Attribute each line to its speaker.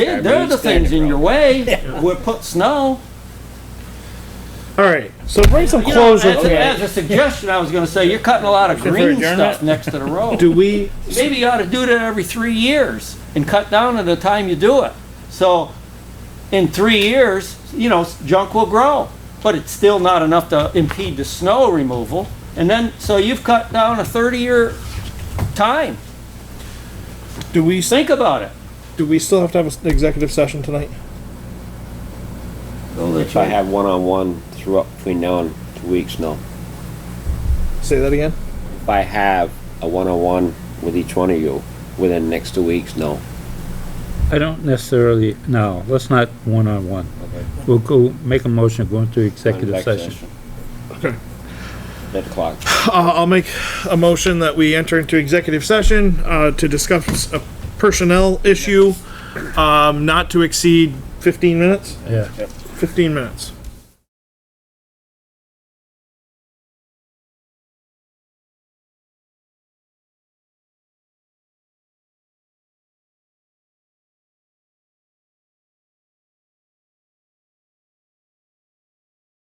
Speaker 1: Yeah, they're the things in your way. We put snow.
Speaker 2: All right, so bring some
Speaker 1: You know, as,
Speaker 2: closure
Speaker 1: a,
Speaker 2: to it.
Speaker 1: as a suggestion, I was gonna say, you're cutting a lot of
Speaker 2: for
Speaker 1: green
Speaker 2: adjournment?
Speaker 1: stuff next to the road.
Speaker 2: Do we,
Speaker 1: Maybe you ought to do that every three years and cut down on the time you do it. So in three years, you know, junk will grow, but it's still not enough to impede the snow removal. And then, so you've cut down a thirty-year time.
Speaker 2: do we,
Speaker 1: Think about it.
Speaker 2: do we still have to have an executive session tonight?
Speaker 3: If I have one-on-one throughout between now and two weeks, no.
Speaker 2: Say that again?
Speaker 3: If I have a one-on-one with each one of you within the next two weeks, no.
Speaker 4: I don't necessarily, no, let's not one-on-one. We'll go, make a motion, go into executive session.
Speaker 2: Okay.
Speaker 3: That clock.
Speaker 2: Uh, I'll make a motion that we enter into executive session, uh, to discuss a personnel issue, um, not to exceed fifteen minutes,
Speaker 4: Yeah.
Speaker 2: fifteen minutes.